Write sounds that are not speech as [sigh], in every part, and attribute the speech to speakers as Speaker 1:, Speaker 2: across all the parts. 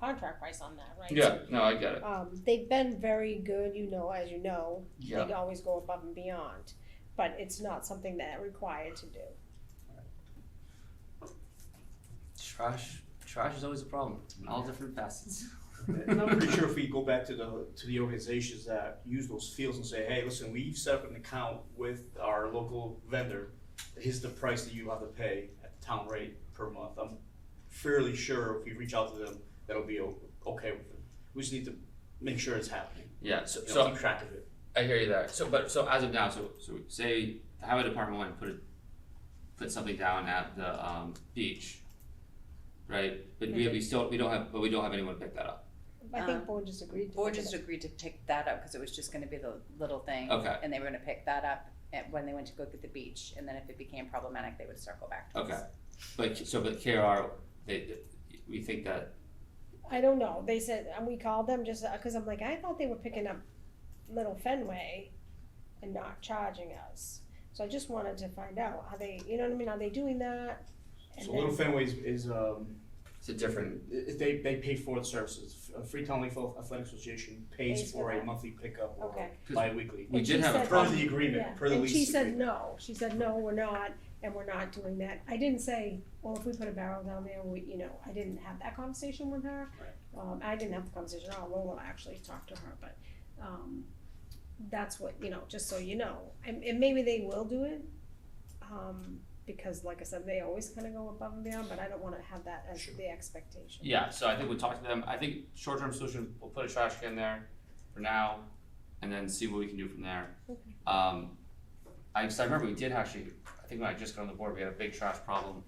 Speaker 1: contract price on that, right?
Speaker 2: Yeah, no, I get it.
Speaker 3: Um, they've been very good, you know, as you know,
Speaker 2: Yeah.
Speaker 3: they always go above and beyond, but it's not something that they're required to do.
Speaker 4: Trash, trash is always a problem in all different facets.
Speaker 5: And I'm pretty sure if we go back to the, to the organizations that use those fields and say, hey, listen, we've set up an account with our local vendor. Here's the price that you have to pay at the town rate per month. I'm fairly sure if we reach out to them, that'll be o- okay with them. We just need to make sure it's happening.
Speaker 2: Yeah, so,
Speaker 5: You know,
Speaker 2: so
Speaker 5: keep track of it.
Speaker 2: I hear you there. So, but, so as of now, so, so say the highway department went and put a, put something down at the, um, beach. Right, but we, we still, we don't have, but we don't have anyone to pick that up.
Speaker 3: I think
Speaker 6: Uh,
Speaker 3: board just agreed to.
Speaker 6: Board
Speaker 3: look at
Speaker 6: just
Speaker 3: it.
Speaker 6: agreed to pick that up because it was just gonna be the little thing.
Speaker 2: Okay.
Speaker 6: And they were gonna pick that up at, when they went to go get the beach, and then if it became problematic, they would circle back to us.
Speaker 2: Okay, but, so, but KR, they, we think that,
Speaker 3: I don't know, they said, and we called them just, uh, cause I'm like, I thought they were picking up Little Fenway and not charging us. So I just wanted to find out, are they, you know what I mean, are they doing that? And
Speaker 5: So Little
Speaker 3: then-
Speaker 5: Fenway is, is, um,
Speaker 2: it's a different,
Speaker 5: i- i- they, they pay for the services. F- uh, Freetown Lakeville Athletic Association pays
Speaker 3: Pays for
Speaker 5: for a
Speaker 3: that.
Speaker 5: monthly pickup or
Speaker 3: Okay.
Speaker 5: bi-weekly.
Speaker 2: we
Speaker 3: And
Speaker 2: did
Speaker 3: she
Speaker 2: have a
Speaker 3: said- "Oh,
Speaker 5: Per
Speaker 2: problem.
Speaker 5: the
Speaker 3: Yeah,
Speaker 5: agreement, per the
Speaker 3: and
Speaker 5: lease
Speaker 3: she said
Speaker 5: agreement.
Speaker 3: no, she said, no, we're not, and we're not doing that, I didn't say, well, if we put a barrel down there, we, you know, I didn't have that conversation with her. Um, I didn't have the conversation, at all. Lola actually talked to her, but, um, that's what, you know, just so you know, and, and maybe they will do it. Um, because like I said, they always kinda go above and beyond, but I don't wanna have that as
Speaker 5: Sure.
Speaker 3: the expectation.
Speaker 2: Yeah, so I think we talked to them, I think short-term solution, we'll put a trash can there for now, and then see what we can do from there.
Speaker 3: Okay.
Speaker 2: Um, I, so I remember we did actually, I think when I just got on the board, we had a big trash problem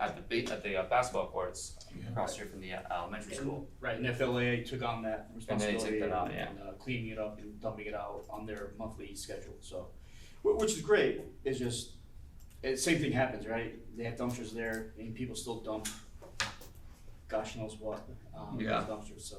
Speaker 2: at the ba- at the uh, basketball courts across here from the uh, elementary school.
Speaker 5: Right, and FLA took on that
Speaker 2: And they took
Speaker 5: responsibility
Speaker 2: that
Speaker 5: and,
Speaker 2: on, yeah.
Speaker 5: uh, cleaning it up and dumping it out on their monthly schedule, so. wh- Which is great, it's just, it, same thing happens, right? They have dumpsters there and people still dump gosh knows what, um, in
Speaker 2: Yeah.
Speaker 5: those dumpsters, so.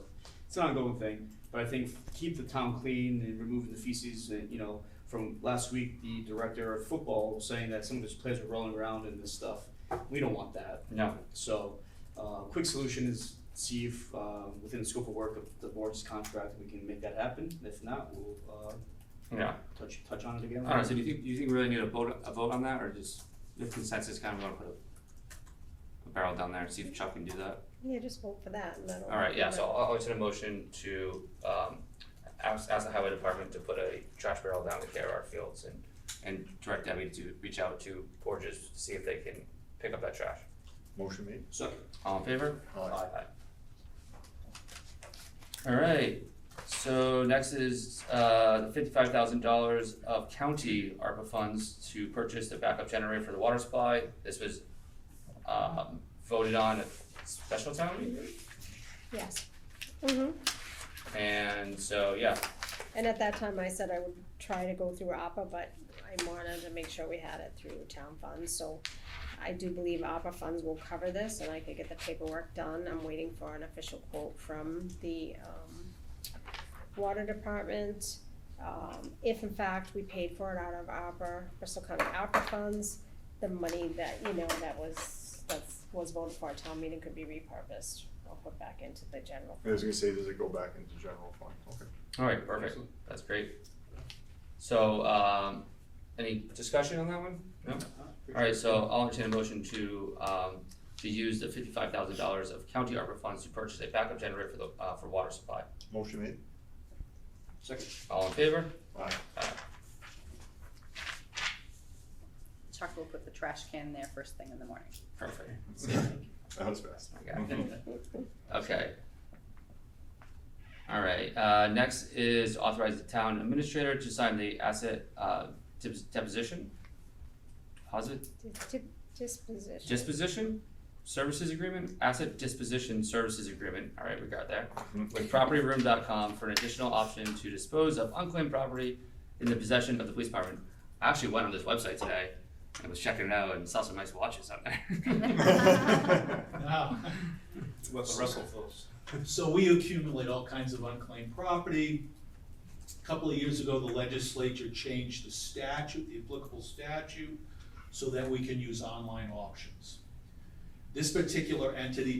Speaker 5: It's an ongoing thing, but I think keep the town clean and removing the feces and, you know, from last week, the director of football was saying that some of his players were rolling around in this stuff. We don't want that.
Speaker 2: No.
Speaker 5: So, uh, quick solution is see if, uh, within the scope of work of the board's contract, we can make that happen. If not, we'll, uh,
Speaker 2: Yeah.
Speaker 5: touch, touch on it again.
Speaker 2: I don't know, so do you think, do you think we really need a vote, a vote on that, or just the consensus kind of wanna put a a barrel down there and see if Chuck can do that?
Speaker 3: Yeah, just vote for that and that'll.
Speaker 2: Alright, yeah, so I'll, I'll entertain a motion to, um, ask, ask the highway department to put a trash barrel down at KRR Fields and, and direct Debbie to reach out to Borges to see if they can pick up that trash.
Speaker 7: Motion made.
Speaker 5: So,
Speaker 2: All in favor?
Speaker 7: Aye.
Speaker 2: Alright, so next is, uh, fifty-five thousand dollars of county ARPA funds to purchase the backup generator for the water supply. This was, um, voted on at special town meeting,
Speaker 3: Yes. Mm-hmm,
Speaker 2: and so, yeah,
Speaker 3: and at that time I said I would try to go through APA, but I wanted to make sure we had it through town funds, so. I do believe APA funds will cover this and I could get the paperwork done, I'm waiting for an official quote from the, um, water department. Um, if in fact we paid for it out of APA, Bristol County APA funds, the money that, you know, that was, that's, was voted for at town meeting could be repurposed. Or put back into the general
Speaker 7: I was gonna say, does it go back into general fund? Okay.
Speaker 2: alright, perfect, that's great. So, um, any discussion on that one? No? Alright, so I'll entertain a motion to, um, to use the fifty-five thousand dollars of county ARPA funds to purchase a backup generator for the, uh, for water supply.
Speaker 7: Motion made.
Speaker 5: second,
Speaker 2: All in favor?
Speaker 7: Aye.
Speaker 6: Chuck will put the trash can there first thing in the morning.
Speaker 2: Perfect.
Speaker 7: [laughs] That was fast.
Speaker 2: I got it. Okay. All right, uh, next is authorize the town administrator to sign the asset, uh, depos- deposition? Deposit,
Speaker 3: Dis- di- Disposition.
Speaker 2: disposition, services agreement, asset disposition services agreement, all right, we got there.
Speaker 7: Mhm.
Speaker 2: With propertyroom.com for an additional option to dispose of unclaimed property in the possession of the police department. I actually went on this website today and was checking it out and saw some nice watches on [laughs]
Speaker 7: [laughs]
Speaker 2: there.
Speaker 8: Wow.
Speaker 5: about the Russell Phillips.
Speaker 8: So we accumulate all kinds of unclaimed property. A Couple of years ago, the legislature changed the statute, the applicable statute, so that we can use online auctions. This particular entity